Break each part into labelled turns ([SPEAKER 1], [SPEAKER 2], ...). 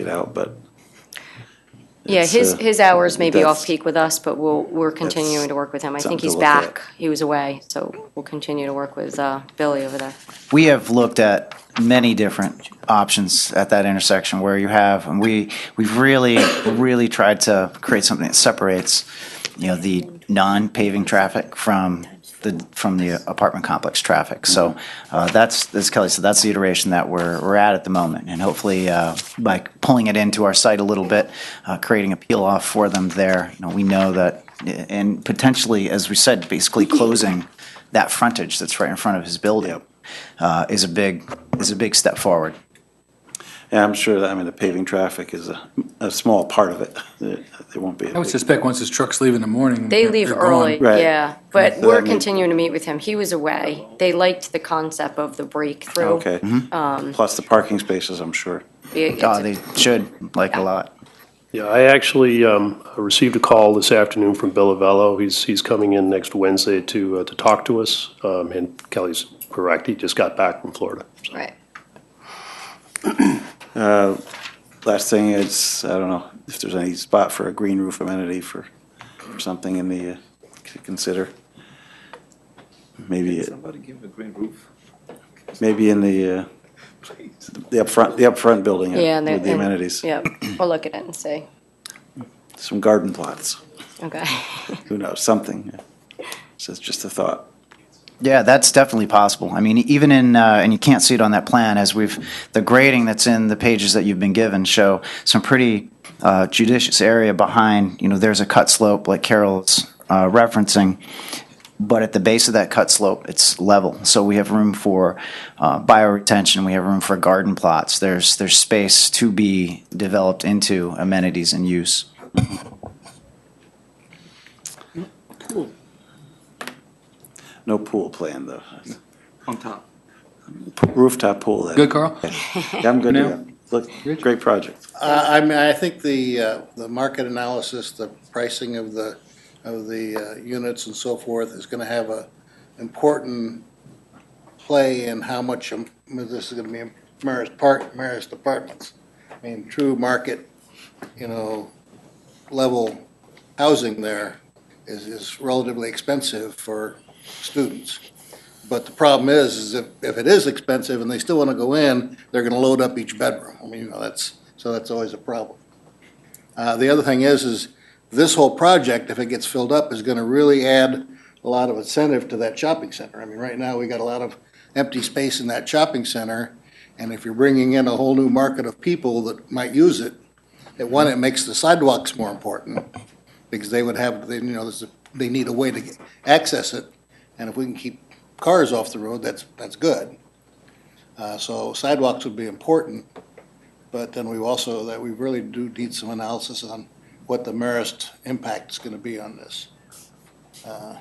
[SPEAKER 1] it out, but
[SPEAKER 2] Yeah,
[SPEAKER 1] It's,
[SPEAKER 2] his,
[SPEAKER 1] uh,
[SPEAKER 2] his hours may be
[SPEAKER 1] that's-
[SPEAKER 2] off-peak with us, but we'll, we're continuing to work with him. I
[SPEAKER 1] something
[SPEAKER 2] think
[SPEAKER 1] to
[SPEAKER 2] he's
[SPEAKER 1] look at.
[SPEAKER 2] back. He was away, so we'll continue to work with uh, Billy over there.
[SPEAKER 3] We have looked at many different options at that intersection where you have, and we, we've really, really tried to create something that separates, you know, the non-paving traffic from the, from the apartment complex traffic. So, uh, that's, as Kelly said, that's the iteration that we're, we're at at the moment. And hopefully, uh, by pulling it into our site a little bit, uh, creating a peel off for them there, you know, we know that, and potentially, as we said, basically closing that frontage that's right in front of his building uh, is a big is a big step forward.
[SPEAKER 1] yeah, I'm sure that, I mean, the paving traffic is a, a small part of it. It it won't be. a
[SPEAKER 4] I would
[SPEAKER 1] big-
[SPEAKER 4] suspect once his trucks leave in the morning.
[SPEAKER 2] They
[SPEAKER 4] they're-
[SPEAKER 2] leave
[SPEAKER 4] they're
[SPEAKER 2] early,
[SPEAKER 4] gone.
[SPEAKER 1] Right.
[SPEAKER 2] yeah, but
[SPEAKER 1] So that
[SPEAKER 2] we're
[SPEAKER 1] means-
[SPEAKER 2] continuing to meet with him. He was away. They liked the concept of the breakthrough.
[SPEAKER 1] Okay.
[SPEAKER 2] Mm-hmm. Um,
[SPEAKER 1] Plus the parking spaces, I'm sure.
[SPEAKER 2] Be- it's
[SPEAKER 3] Oh,
[SPEAKER 2] a-
[SPEAKER 3] they should like a lot.
[SPEAKER 5] Yeah, I actually um, received a call this afternoon from Bill Avello. He's, he's coming in next Wednesday to, uh, to talk to us. Um, And Kelly's correct, he just got back from Florida.
[SPEAKER 2] Right.
[SPEAKER 1] Last thing is, I don't know if there's any spot for a green roof amenity for, for something in the, uh, to consider. Maybe, it-
[SPEAKER 6] Somebody give him a green roof,
[SPEAKER 1] maybe in the, uh,
[SPEAKER 6] please.
[SPEAKER 1] the upfront, the upfront building uh,
[SPEAKER 2] Yeah, and they-
[SPEAKER 1] with the
[SPEAKER 2] and-
[SPEAKER 1] amenities.
[SPEAKER 2] Yeah, we'll look at it and see.
[SPEAKER 1] Some garden plots,
[SPEAKER 2] Okay.
[SPEAKER 1] who knows, something. So it's just a thought.
[SPEAKER 3] Yeah, that's definitely possible. I mean, even in uh, and you can't see it on that plan as we've the grading that's in the pages that you've been given show some pretty uh, judicious area behind. You know, there's a cut slope like Carol's uh, referencing. But at the base of that cut slope, it's level. So we have room for uh, bioretention. We have room for garden plots. There's there's space to be developed into amenities and use.
[SPEAKER 1] No pool plan, though.
[SPEAKER 6] On top.
[SPEAKER 1] Rooftop pool. then.
[SPEAKER 4] Good, Carl?
[SPEAKER 1] Yeah, I'm good.
[SPEAKER 6] Now?
[SPEAKER 1] yeah. Look, great project.
[SPEAKER 7] Uh, I mean, I think the, uh, the market analysis, the pricing of the, of the uh, units and so forth is gonna have a important play in how much um, this is gonna be in Marist Park, Marist Apartments. I mean, true market, you know, level housing there is, is relatively expensive for students. But the problem is, is if, if it is expensive and they still wanna go in, they're gonna load up each bedroom. I mean, you know, that's, so that's always a problem. Uh, The other thing is, is this whole project, if it gets filled up, is going to really add a lot of incentive to that shopping center. I mean, right now, we got a lot of empty space in that shopping center, and if you're bringing in a whole new market of people that might use it, at one, it makes the sidewalks more important, because they would have, they, you know, there's a- they need a way to get- access it, and if we can keep cars off the road, that's, that's good. Uh, So sidewalks would be important. But then we also, that we really do need some analysis on what the Marist impact is gonna be on this. Uh,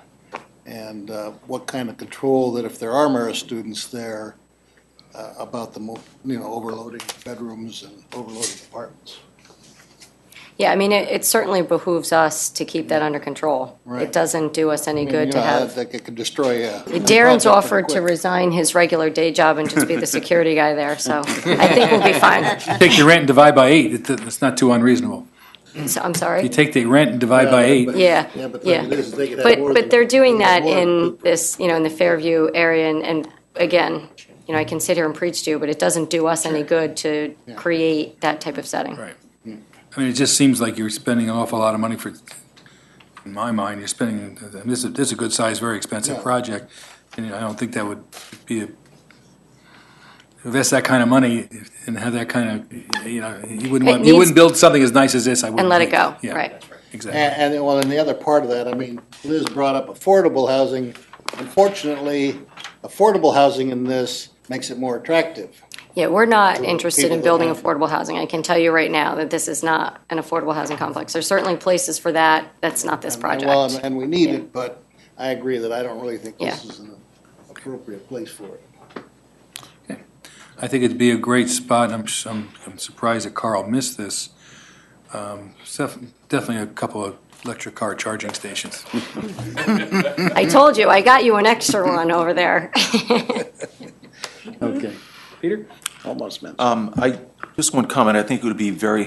[SPEAKER 7] And uh, what kind of control that if there are Marist students there uh, about the, mo- you know, overloading bedrooms and overloading apartments.
[SPEAKER 2] Yeah, I mean, it it certainly behooves us to keep that under control. It
[SPEAKER 7] Right.
[SPEAKER 2] doesn't do us any
[SPEAKER 7] I mean,
[SPEAKER 2] good
[SPEAKER 7] you
[SPEAKER 2] to
[SPEAKER 7] know,
[SPEAKER 2] have.
[SPEAKER 7] that- That could destroy a.
[SPEAKER 2] Darren's
[SPEAKER 7] a project pretty
[SPEAKER 2] offered to
[SPEAKER 7] quick.
[SPEAKER 2] resign his regular day job and just be the security guy there, so I think we'll be fine.
[SPEAKER 4] Take your rent and divide by eight, It- it's not too unreasonable.
[SPEAKER 2] So- I'm
[SPEAKER 4] You
[SPEAKER 2] sorry.
[SPEAKER 4] take the rent and divide by eight,
[SPEAKER 2] Yeah,
[SPEAKER 7] Yeah, but the
[SPEAKER 2] yeah.
[SPEAKER 7] thing is, they could have
[SPEAKER 2] But,
[SPEAKER 7] more
[SPEAKER 2] but
[SPEAKER 7] than-
[SPEAKER 2] they're doing
[SPEAKER 7] they could
[SPEAKER 2] that
[SPEAKER 7] have more than two
[SPEAKER 2] in
[SPEAKER 7] per-
[SPEAKER 2] this, you know, in the Fairview area, and, and again, you know, I can sit here and preach to you, but it doesn't do us any good to create that type of setting.
[SPEAKER 4] Right. I mean, it just seems like you're spending an awful lot of money for, in my mind, you're spending, and this is, this is a good size, very expensive
[SPEAKER 7] Yeah.
[SPEAKER 4] project. And I don't think that would be, a invest that kind of money and have that kind of, you know, you wouldn't
[SPEAKER 2] It
[SPEAKER 4] want, you
[SPEAKER 2] needs-
[SPEAKER 4] wouldn't build something as nice as this, I wouldn't.
[SPEAKER 2] And let it
[SPEAKER 4] think.
[SPEAKER 2] go,
[SPEAKER 4] Yeah,
[SPEAKER 2] right.
[SPEAKER 4] Exactly.
[SPEAKER 7] And, and then, well, and the other part of that, I mean, Liz brought up affordable housing. Unfortunately, affordable housing in this makes it more attractive.
[SPEAKER 2] Yeah, we're not interested
[SPEAKER 7] people
[SPEAKER 2] in
[SPEAKER 7] that
[SPEAKER 2] building
[SPEAKER 7] have-
[SPEAKER 2] affordable housing. I can tell you right now that this is not an affordable housing complex. There's certainly places for that. That's not this
[SPEAKER 7] And- and well,
[SPEAKER 2] project.
[SPEAKER 7] And we need it, but I agree that I don't really think this
[SPEAKER 2] Yeah.
[SPEAKER 7] is an appropriate place for it.
[SPEAKER 4] I think it'd be a great spot, and I'm, s- I'm, I'm surprised that Carl missed this. Um, stuff- Definitely a couple of electric car charging stations.
[SPEAKER 2] I told you, I got you an extra one over there.
[SPEAKER 6] Okay. Peter?
[SPEAKER 1] Almost meant.
[SPEAKER 6] Um, I,
[SPEAKER 8] Just one comment. I think it would be very